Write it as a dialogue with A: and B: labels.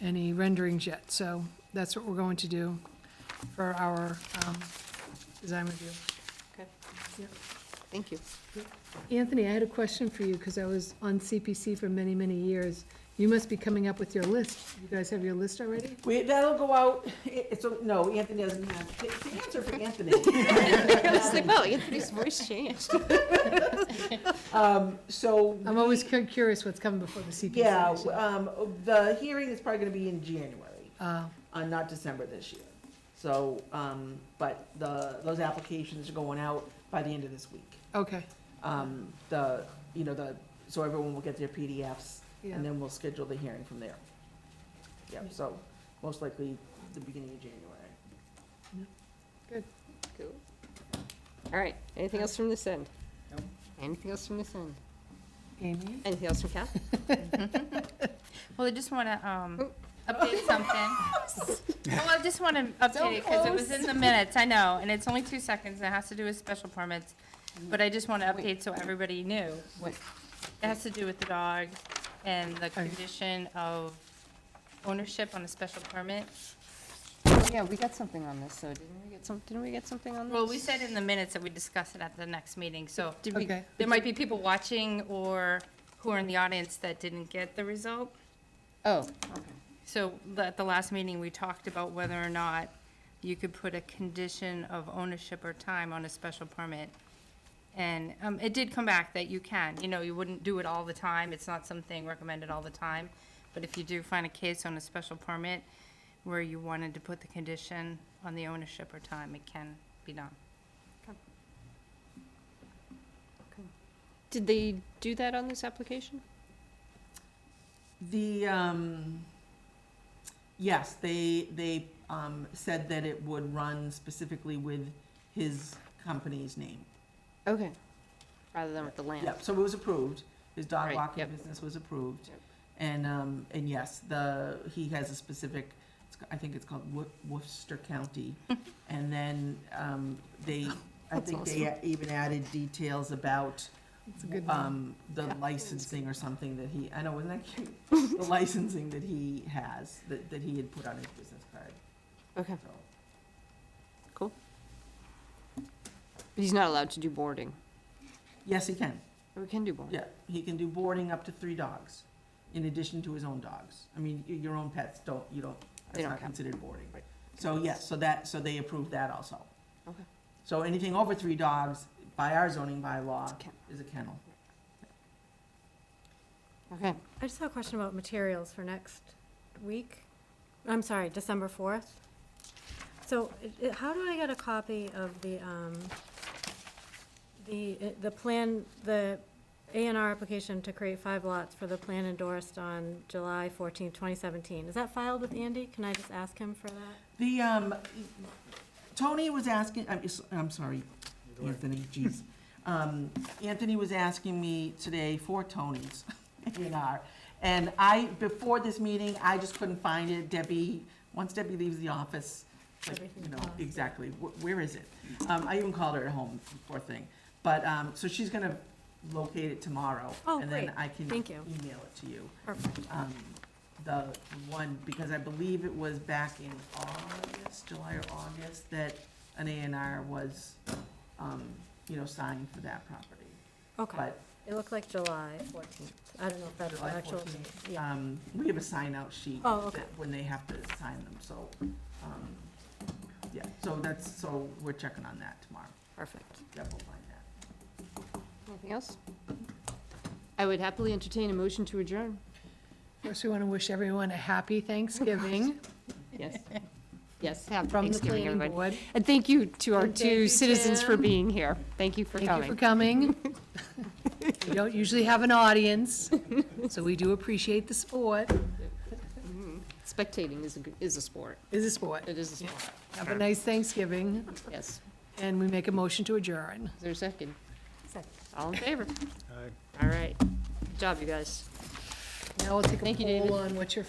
A: any renderings yet, so that's what we're going to do for our um, design review.
B: Okay.
A: Yep.
B: Thank you.
A: Anthony, I had a question for you, because I was on CPC for many, many years. You must be coming up with your list. You guys have your list already?
C: We, that'll go out, it- it's, a- no, Anthony doesn't have, the the answer for Anthony.
B: I was like, wow, Anthony's voice changed.
C: Um, so,
A: I'm always cu- curious what's coming before the CPC.
C: yeah,
A: so-
C: um, the hearing is probably gonna be in January,
A: Uh,
C: uh, not December this year. So, um, but the, those applications are going out by the end of this week.
A: Okay,
C: Um, the, you know, the, so everyone will get their PDFs,
A: yeah,
C: and then we'll schedule the hearing from there. Yeah, so, most likely the beginning of January.
B: Cool. All right, anything else from this end?
C: No.
B: Anything else from this end?
A: Amy?
B: Anything else from Kath?
D: Well, I just want to um,
B: Oh.
D: update something. Well, I just want to update it because it was in the minutes, I know, and it's only two seconds, and it has to do with special permits. But I just want to update so everybody knew. what- It has to do with the dog and the condition of ownership on a special permit.
B: Oh, Yeah, we got something on this, so didn't we get some, didn't we get something on this?
D: Well, we said in the minutes that we discuss it at the next meeting, so
B: Did we,
A: Okay,
D: there might be people watching or who are in the audience that didn't get the result.
B: oh,
D: So the- at the last meeting, we talked about whether or not you could put a condition of ownership or time on a special permit. And um, it did come back that you can, you know, you wouldn't do it all the time. It's not something recommended all the time. But if you do find a case on a special permit where you wanted to put the condition on the ownership or time, it can be done.
B: did they do that on this application?
C: The, um, yes, they, they, um, said that it would run specifically with his company's name.
B: Okay. Rather than with the land?
C: Yep, so it was approved, his dog
B: Right,
C: walking
B: yep.
C: business was approved.
B: Yep.
C: And, um, and yes, the, he has a specific, it's ca- I think it's called Wo- Worcester County. And then, um, they, I
B: That's
C: think they even added details about,
A: it's a good one.
C: um, the
B: Yeah.
C: licensing or something that he, I know, wasn't that cute? The licensing that he has, that, that he had put on his business card,
B: Okay,
C: so.
B: but he's not allowed to do boarding,
C: Yes, he can,
B: or we can do boarding?
C: yeah, he can do boarding up to three dogs, in addition to his own dogs. I mean, y- your own pets don't, you don't,
B: They
C: that's
B: don't
C: not
B: count.
C: considered boarding.
B: Right.
C: So, yes, so that, so they approved that also.
B: Okay.
C: So anything over three dogs, by our zoning bylaw,
B: It's a kennel.
C: is a kennel.
B: Okay,
E: I just have a question about materials for next week. I'm sorry, December 4th. So i- i- how do I get a copy of the, um, the, uh, the plan, the A and R application to create five lots for the plan endorsed on July 14, 2017? Is that filed with Andy? Can I just ask him for that?
C: The, um, Tony was asking, I'm, s- I'm sorry, Anthony, jeez. Um, Anthony was asking me today for Tony's A and R. And I, before this meeting, I just couldn't find it. Debbie, once Debbie leaves the office, like, you
E: Everything's
C: know,
E: gone.
C: exactly, wh- where is it? Um, I even called her at home, poor thing. But, um, so she's gonna locate it tomorrow.
E: Oh,
C: And then
E: great.
C: I can
E: Thank you.
C: email it to you
E: Perfect.
C: um, the one, because I believe it was back in August, July or August, that an A and R was, um, you know, signed for that property.
E: Okay.
C: But,
E: It looked like July 14th. I don't know if that's the
C: July
E: actual
C: 14th.
E: date. Yeah.
C: um, we have a sign-out sheet.
E: Oh, okay.
C: that- When they have to sign them, so, um, yeah, so that's, so we're checking on that tomorrow.
B: perfect.
C: Yeah, we'll find that.
B: Anything else? I would happily entertain a motion to adjourn.
A: First, we want to wish everyone a happy Thanksgiving
B: Yes. Yes, have
A: from the
B: Thanksgiving,
A: planning
B: everybody.
A: board.
B: And thank you to our
A: And thank
B: two
A: you,
B: citizens for
A: Tim.
B: being here. Thank you for
A: Thank you for
B: coming.
A: coming. We don't usually have an audience, so we do appreciate the sport.
B: Spectating is a, g- is a sport.
A: Is a sport.
B: It is a sport,
A: Have a nice Thanksgiving,
B: yes.
A: and we make a motion to adjourn.
B: Is there a second?
E: Second.
B: All in favor? All right. Good job, you guys.
A: Now we'll take a
B: Thank you, David.
A: poll on what your